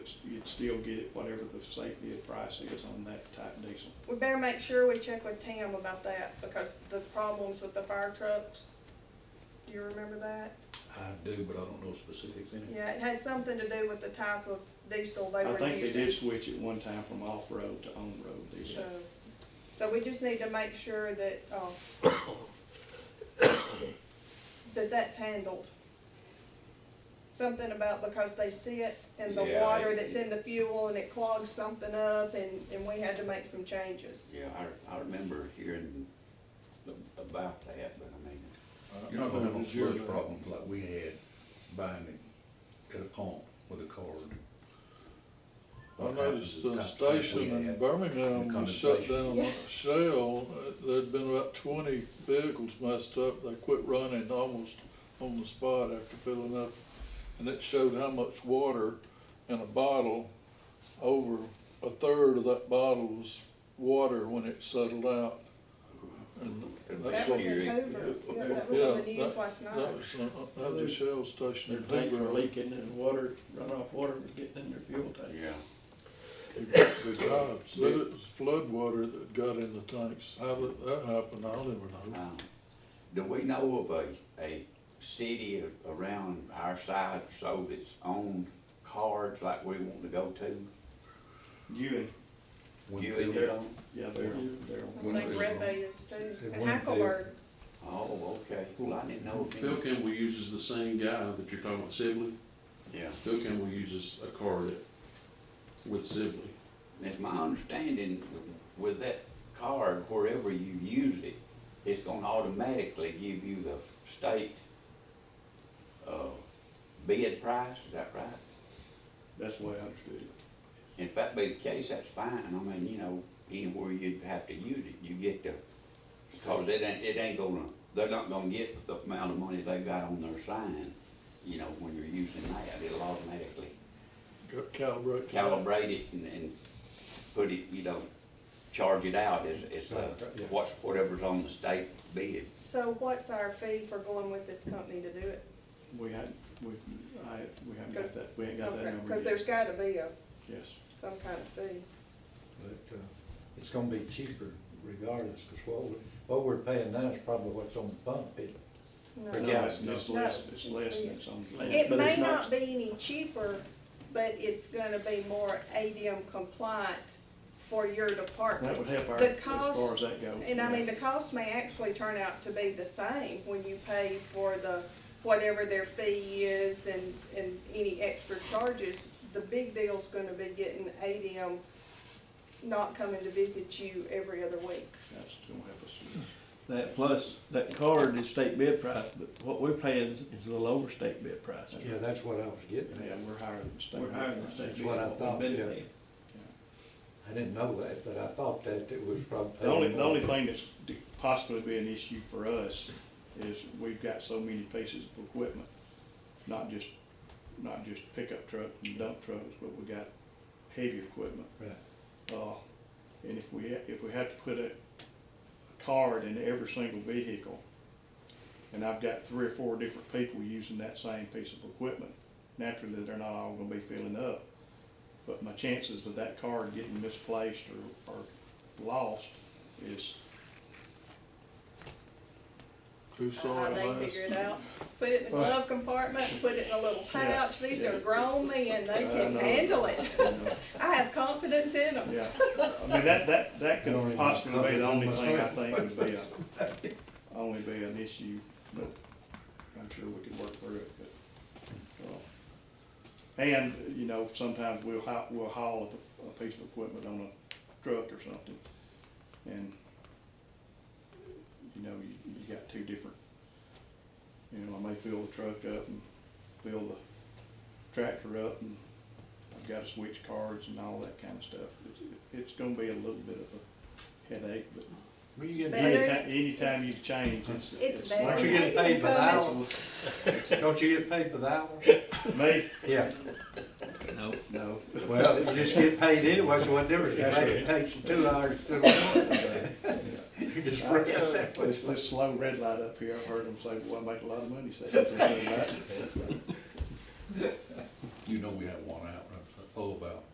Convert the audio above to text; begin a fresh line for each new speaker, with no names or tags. you'd still get it, whatever the safety bid price is on that type diesel.
We better make sure we check with Tim about that, because the problems with the fire trucks, do you remember that?
I do, but I don't know specifics in it.
Yeah, it had something to do with the type of diesel they
I
were
think they
using.
did switch it one time from off-road to on-road diesel.
So, so we just need to make sure that, uh, that that's handled. Something about because they sit in the
Yeah,
water
it-
that's in the fuel and it clogs something up and, and we had to make some changes.
Yeah, I, I remember hearing a- about that, but I mean,
You're not gonna have a sludge problem like we had buying it at a pump with a card.
I
What happens
noticed
is
the
kind of like we
station in
had-
Birmingham was shut
condensation.
down by Shell. Uh, There'd been about twenty vehicles messed up. They quit running almost on the spot after filling up. And it showed how much water in a bottle, over a third of that bottle was water when it settled out. And that's
That
what,
was
that
in
Yeah.
Hoover, yeah, that was on the
Yeah,
news last night.
was, uh, that was a Shell station
Their
in
tanks were
Hoover.
leaking and water, runoff water was getting in their fuel tank.
yeah.
Good God, so it was flood water that got in the tanks. How did that happen? I'll never know.
Um, Do we know of a, a city a- around our side or so that's on cards like we want to go to?
Ewing,
You and
Winfield,
your own?
yeah, they're, they're,
I think Red Bay is too, and Hackleburg,
Oh, okay, well, I didn't know. of
Phil
any-
Campbell uses the same guy that you're talking about, Sibley.
Yeah,
Phil Campbell uses a card at- with Sibley.
and it's my understanding with that card, wherever you use it, it's gonna automatically give you the state, uh, bid price, is that right?
that's the way I understood it.
If that be the case, that's fine, I mean, you know, anywhere you'd have to use it, you get the, because it ain't, it ain't gonna, they're not gonna get the amount of money they got on their sign, you know, when you're using that, it'll automatically
Got calibrated.
calibrate it and, and put it, you know, charge it out as, as, uh, what's, whatever's on the state bid.
so what's our fee for going with this company to do it?
We hadn't, we, I, we haven't got that, we ain't got that
Okay,
number
Cause
yet.
there's gotta be a,
Yes,
some kind of fee.
But, uh, it's gonna be cheaper regardless, cause what we, what we're paying now is probably what's on the pump. It-
No.
no,
Yeah,
it's, it's
no.
less, it's
No,
less
it's-
than it's on the land,
It
but
may
it's
not be any cheaper, but it's gonna be more ADM compliant for your
That
department.
would help our,
The
as
cost-
far as that goes.
And I mean,
yeah.
the cost may actually turn out to be the same when you pay for the, whatever their fee is and, and any extra charges. The big deal's gonna be getting ADM not coming to visit you every other week.
That's gonna help us.
That plus, that card is state bid price, but what we're paying is a little over state bid price.
Yeah, that's what I was getting at.
Yeah, we're higher than state.
We're higher than state
That's
bid.
what I thought,
Been
yeah.
paying.
I didn't know that, but I thought that it was probably.
The only, the only thing that's d- possibly be an issue for us is we've got so many pieces of equipment, not just, not just pickup trucks and dump trucks, but we got heavy equipment.
Right.
Uh, and if we, ha- if we have to put a a card in every single vehicle, and I've got three or four different people using that same piece of equipment, naturally, they're not all gonna be filling up. But my chances of that card getting misplaced or, or lost is
Who saw
How
it
they
last?
figure it out. Put it in the glove compartment, put it in a little
Yeah.
pouch, these are grown men, they
I
can
know.
handle it.
you know,
I have confidence in them.
Yeah, I mean, that, that, that
I don't
could
even
possibly be the only
cover
thing I
myself.
think would be a, only be an issue, but I'm sure we could work through it, but, uh, and, you know, sometimes we'll haul, we'll haul a, a piece of equipment on a truck or something, and, you know, you, you got two different, you know, I may fill the truck up and fill the tractor up and I've got to switch cards and all that kind of stuff. It's- It's gonna be a little bit of a headache, but
When you get,
Better.
anytime, anytime you change, it's.
It's
don't
better.
you get
They can
paid by the hour?
come
Don't you get paid by the hour?
Me,
Yeah,
No,
no.
well, you just get paid anyway, so what difference it makes? It takes you two hours to do it. You just rest that way.
This, this slow red light up here, I've heard them say, well, I make a lot of money, say that.
You know we have oh,